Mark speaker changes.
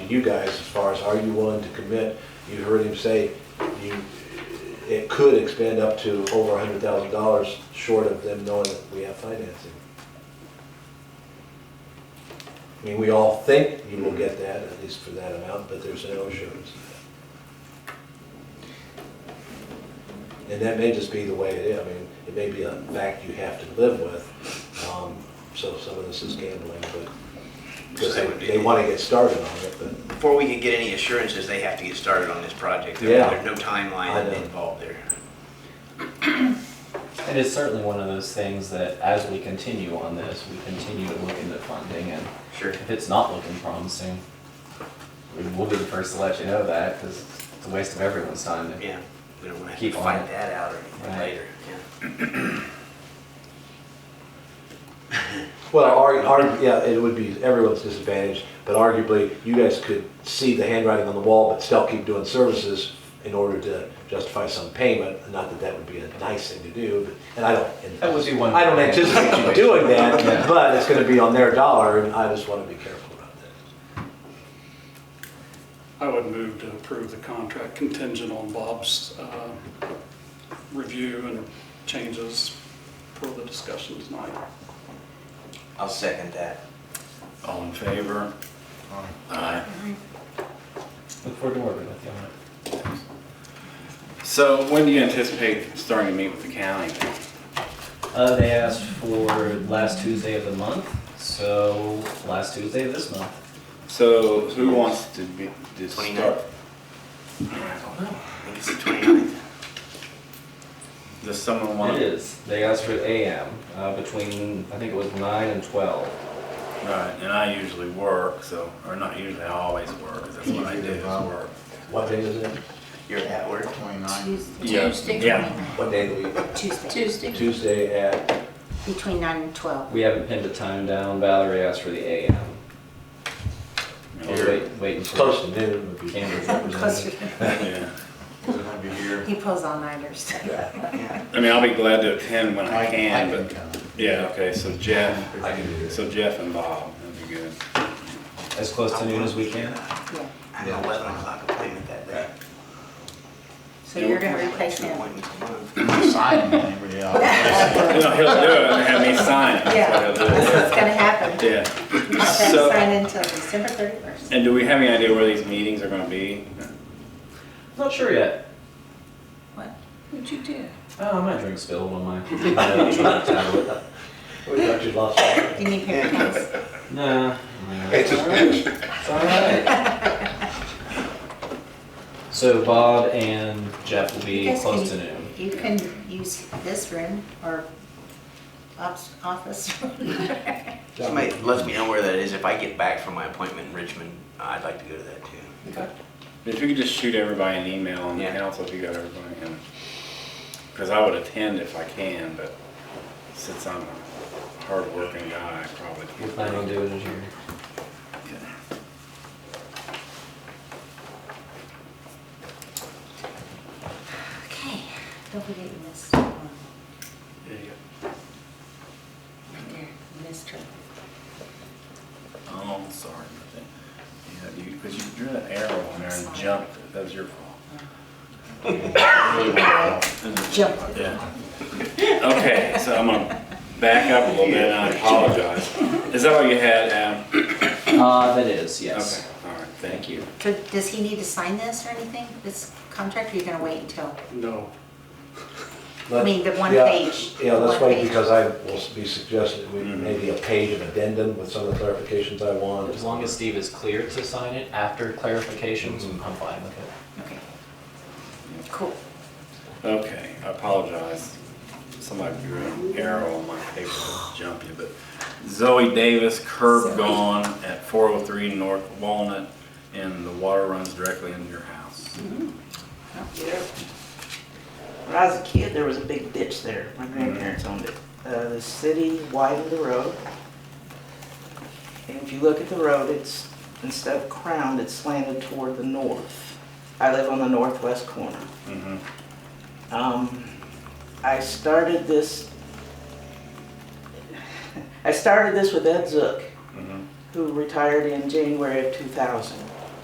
Speaker 1: you guys as far as are you willing to commit? You heard him say you, it could expand up to over hundred thousand dollars short of them knowing that we have financing. I mean, we all think you will get that, at least for that amount, but there's no assurance. And that may just be the way it is, I mean, it may be a fact you have to live with, um, so some of this is gambling, but, because
Speaker 2: So that would be-
Speaker 1: they wanna get started on it, but,
Speaker 2: Before we can get any assurances, they have to get started on this project. There-
Speaker 1: Yeah.
Speaker 2: There's no
Speaker 1: I
Speaker 2: timeline
Speaker 1: know.
Speaker 2: involved there.
Speaker 3: It is certainly one of those things that as we continue on this, we continue to look into funding and
Speaker 2: Sure.
Speaker 3: if it's not looking promising, we- we'll be the first to let you know that because it's a waste of everyone's time. to-
Speaker 2: Yeah, we don't want to
Speaker 3: Keep on
Speaker 2: find
Speaker 3: it.
Speaker 2: that out or anything
Speaker 3: Right.
Speaker 2: later. yeah.
Speaker 1: well, ar- ar- yeah, it would be everyone's disadvantage, but arguably, you guys could see the handwriting on the wall, but still keep doing services in order to justify some payment, not that that would be a nice thing to do, but- and I don't.
Speaker 3: That would be one.
Speaker 1: I don't anticipate you doing that,
Speaker 3: Yeah.
Speaker 1: but it's gonna be on their dollar, and I just wanna be careful about that.
Speaker 4: I would move to approve the contract contingent on Bob's uh, review and changes for the discussion tonight.
Speaker 2: I'll second that.
Speaker 5: All in favor? Aye.
Speaker 3: Look forward to working with you on it.
Speaker 5: So when do you anticipate starting to meet with the county?
Speaker 3: Uh, they asked for last Tuesday of the month, so last Tuesday of this month.
Speaker 5: So who wants to be, to start?
Speaker 2: 29th. I think it's the 29th.
Speaker 5: Does someone want?
Speaker 3: It is. They asked for AM, uh, between, I think it was nine and twelve.
Speaker 5: Right, and I usually work, so, or not usually, I always work, 'cause that's what I do, is work.
Speaker 1: What day is it?
Speaker 2: You're at work.
Speaker 5: Yeah.
Speaker 6: Tuesday.
Speaker 5: Yeah.
Speaker 1: What day of the week?
Speaker 6: Tuesday,
Speaker 7: Tuesday,
Speaker 1: Tuesday at,
Speaker 6: between nine and twelve.
Speaker 3: We haven't pinned a time down. Valerie asked for the AM. I was
Speaker 5: Here.
Speaker 3: wait- waiting for.
Speaker 1: close to noon would be.
Speaker 3: Camden's
Speaker 6: Closer.
Speaker 3: representative.
Speaker 5: Yeah.
Speaker 6: He pulls all-nighters.
Speaker 5: I mean, I'll be glad to attend when I
Speaker 8: I
Speaker 5: can,
Speaker 8: can
Speaker 5: but,
Speaker 8: come.
Speaker 5: yeah, okay, so Jeff,
Speaker 1: I can do that.
Speaker 5: so Jeff and Bob, that'd be good.
Speaker 3: As close to noon as we can.
Speaker 6: Yeah.
Speaker 2: I have an 11 o'clock appointment that day.
Speaker 6: So you're gonna replace
Speaker 2: Two
Speaker 6: him?
Speaker 2: appointments a month.
Speaker 8: Sign him, yeah.
Speaker 5: No, he'll do it, and have me sign it, that's what he'll do.
Speaker 6: It's gonna happen.
Speaker 5: Yeah.
Speaker 6: I'll
Speaker 5: So-
Speaker 6: sign until December thirty-first.
Speaker 5: And do we have any idea where these meetings are gonna be?
Speaker 3: Not sure yet.
Speaker 7: what'd you do?
Speaker 3: Oh, my drink spilled on my uh, tablet.
Speaker 1: We thought you lost. one.
Speaker 6: Do you need paper towels?
Speaker 3: Nah. It's alright. So Bob and Jeff will
Speaker 6: You
Speaker 3: be
Speaker 6: guys
Speaker 3: close to
Speaker 6: can-
Speaker 3: noon.
Speaker 6: You can use this room or Bob's office.
Speaker 2: Somebody lets me know where that is. If I get back from my appointment in Richmond, I'd like to go to that too.
Speaker 5: If you could just shoot everybody an email on the
Speaker 2: Yeah.
Speaker 5: council, if you got everybody in. Because I would attend if I can, but since I'm a hard-working guy, I probably
Speaker 3: We're
Speaker 5: can't.
Speaker 3: planning on doing it here.
Speaker 6: Okay, don't forget you missed um, one.
Speaker 4: There you go.
Speaker 6: Right there, you missed her.
Speaker 5: Oh, I'm sorry. about that. Yeah, you, because you drew that arrow on there and jumped. it. That was your fault.
Speaker 6: Jumped.
Speaker 5: Yeah. Okay, so I'm gonna back up a little bit, and I apologize. Is that all you had, Adam?
Speaker 3: Uh, that is,
Speaker 5: Okay,
Speaker 3: yes.
Speaker 5: all right, thank you.
Speaker 6: Could- Does he need to sign this or anything, this contract, or you gonna wait until?
Speaker 4: No,
Speaker 6: I mean, the one
Speaker 1: Yeah,
Speaker 6: page,
Speaker 1: Yeah, let's
Speaker 6: one
Speaker 1: wait,
Speaker 6: page.
Speaker 1: because I will s- be suggesting we,
Speaker 5: Mhm.
Speaker 1: maybe a page of addendum with some of the clarifications I want.
Speaker 3: As long as Steve is clear to sign it after clarifications, I'm fine with it.
Speaker 6: Okay. Cool.
Speaker 5: Okay, I apologize. Somebody drew an arrow on my paper to jump you, but Zoe Davis, curb
Speaker 6: Sorry.
Speaker 5: gone at 403 North Walnut, and the water runs directly into your house.
Speaker 7: When I was a kid, there was a big ditch there. My grandparents owned it. Uh, the city widened the road. And if you look at the road, it's, instead of crowned, it's slanted toward the north. I live on the northwest corner.
Speaker 5: Mhm.
Speaker 7: Um, I started this, I started this with Ed Zook,
Speaker 5: Mhm.
Speaker 7: who retired in January of 2000.